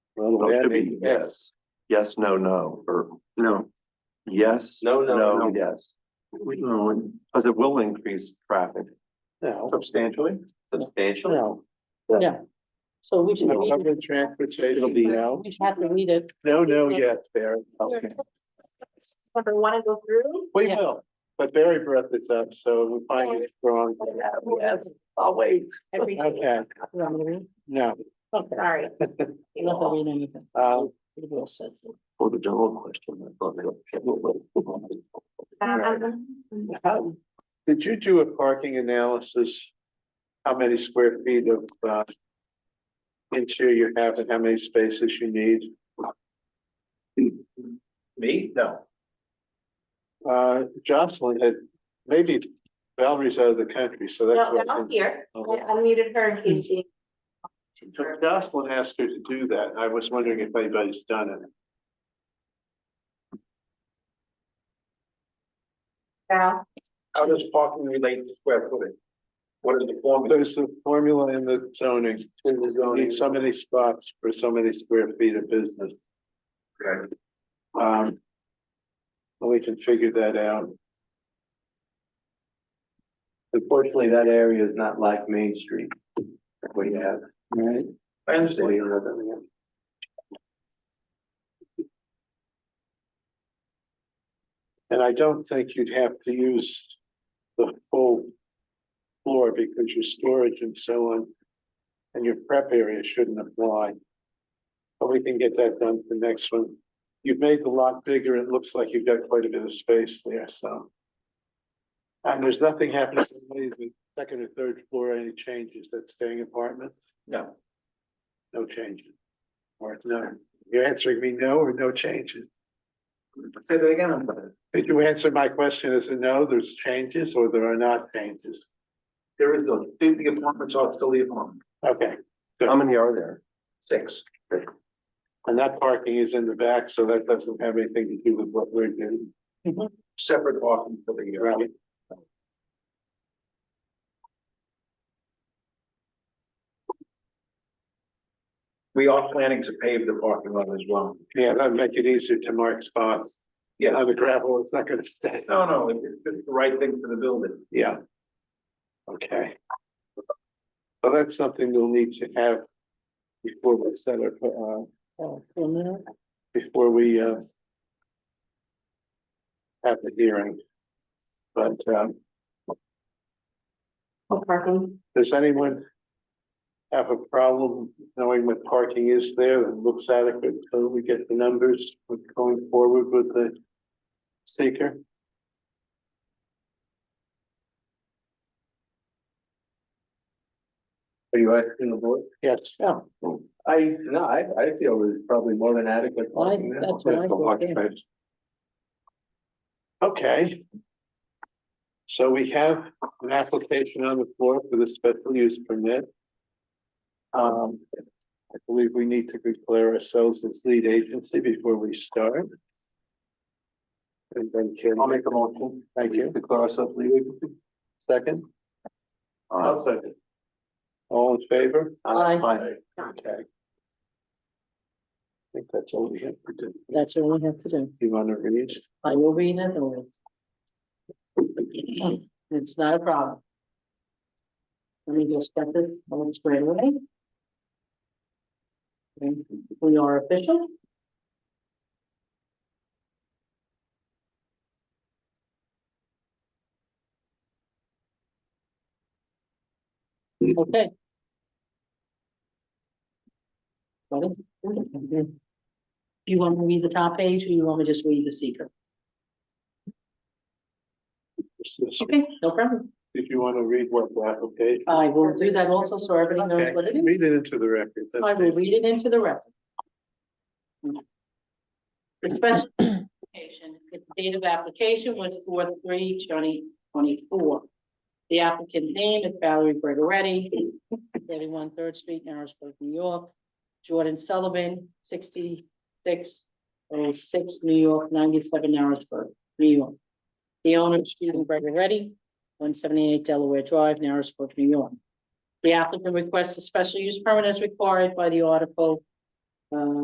Well, the way I Those should read be it, yes. Yes, no, no, or No, yes. No, no, no. Yes, we, no, because it will increase traffic No, substantially. substantially. no. So we should No read public it. transportation, It'll be- no. We should have to read it. No, no, yes, Barry. Okay. Number one to go through? We Yeah. will, but Barry brought this up, so we find it wrong. Yes, I'll wait. Everything, Okay, You want me to read? no, Okay. sorry. You don't have to read anything. um, It will say so. For the general question. I thought they- Um, um, um, how, did you do a parking analysis? How many square feet of, uh, interior you have and how many spaces you need? Me? No. Uh, Jocelyn had, maybe Valerie's out of the country, so that's No, what. Val's here. I Okay. unmuted her in case she. So Jocelyn asked her to do that. and I was wondering if anybody's done it. Val, How does parking relate to square footage? What is the formula? There's a formula in the zoning. In the You need so many spots for so many square feet of business. Okay. Um. We can figure that out. Unfortunately, that area is not like Main Street. What do you have? Right. So I understand. you don't have that again. And I don't think you'd have to use the full floor because your storage and so on and your prep area shouldn't apply. But we can get that done for next one. You've made the lot bigger. It looks like you've got quite a bit of space there, so. And there's nothing happening with the second or third floor, any changes that staying apartment? No. No changes. Or no, you're answering me no or no changes? Say that again. I'm sorry. Did you answer my question as a no, there's changes or there are not changes? There is no, the the apartments are still the apartment, Okay, How many are there? six. and that parking is in the back, so that doesn't have anything to do with what we're doing, Separate parking for the year. right? We are planning to pave the parking lot as well. Yeah, that'd make it easier to mark spots. Yes. On the gravel, it's not gonna stay. No, no, it- it's just the right thing for the building. Yeah. Okay. So that's something we'll need to have before we set our, uh, So, for a minute. before we, uh, have the hearing. But, um, what parking? Does anyone have a problem knowing what parking is there that looks adequate till we get the numbers with going forward with the seeker? Are you asking the board? Yes, Yeah, I, no, I, I feel it's probably more than adequate. I, parking now. that's what I Parking think. yeah. space. okay. So we have an application on the floor for the special use permit. Um, I believe we need to declare ourselves as lead agency before we start. And then Kim. I'll make a motion. Thank you. Declare ourselves lead agency. Second, Uh, I'll second. all in favor? Aye, aye. Okay. I think that's all we have to do. that's what we have to do. You wanna read? I will read it or. It's not a problem. Let me just get this on straight away. And We are official. Okay. Got it? You want me to read the top page or you want me to just read the seeker? Okay, no problem. If you wanna read what the application. I will do that also, so everybody knows Okay, what it is. Read it into the record. that's I will easy. read it into the record. The special application, the date of application was four three twenty twenty-four. The applicant name is Valerie Gregoretti, thirty-one Third Street, Narrowsburg, New York. Jordan Sullivan, sixty-six oh six, New York, ninety-seven Narrowsburg, New York. The owner, Stephen Gregoretti, one seventy-eight Delaware Drive, Narrowsburg, New York. The applicant requests a special use permit as required by the article. uh,